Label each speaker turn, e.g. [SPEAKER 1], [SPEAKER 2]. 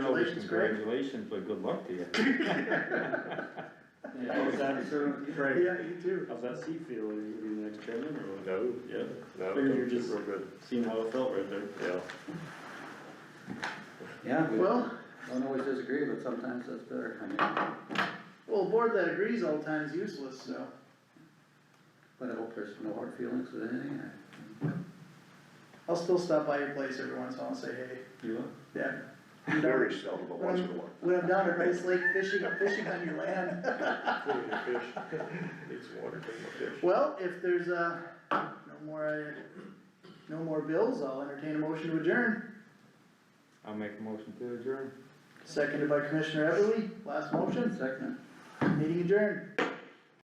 [SPEAKER 1] Congratulations, Greg.
[SPEAKER 2] Congratulations, but good luck to you.
[SPEAKER 3] How's that, sir?
[SPEAKER 1] Yeah,
[SPEAKER 3] Frank,
[SPEAKER 1] you too.
[SPEAKER 3] how's that seat feel? Are you gonna be the next chairman or what?
[SPEAKER 4] No, yeah, no,
[SPEAKER 3] Figured you're
[SPEAKER 4] no,
[SPEAKER 3] just-
[SPEAKER 4] real good,
[SPEAKER 3] Seeing how it felt right there.
[SPEAKER 4] yeah.
[SPEAKER 5] Yeah, we
[SPEAKER 1] Well,
[SPEAKER 5] don't always disagree, but sometimes that's better. I mean,
[SPEAKER 1] well, a board that agrees all the time is useless, so.
[SPEAKER 5] But I hope there's no hard feelings with anything.
[SPEAKER 1] I'll still stop by your place every once in a while and say, hey,
[SPEAKER 3] You
[SPEAKER 1] yeah. I'm down-
[SPEAKER 6] Very seldom, but once in a while.
[SPEAKER 1] When I'm down at Rice Lake fishing, I'm fishing on your land.
[SPEAKER 4] Including the fish, it's water, taking the fish.
[SPEAKER 1] Well, if there's, uh, no more, uh, no more bills, I'll entertain a motion to adjourn.
[SPEAKER 2] I'll make a motion to adjourn.
[SPEAKER 1] Seconded by Commissioner Everly, last motion,
[SPEAKER 5] Second.
[SPEAKER 1] meeting adjourned.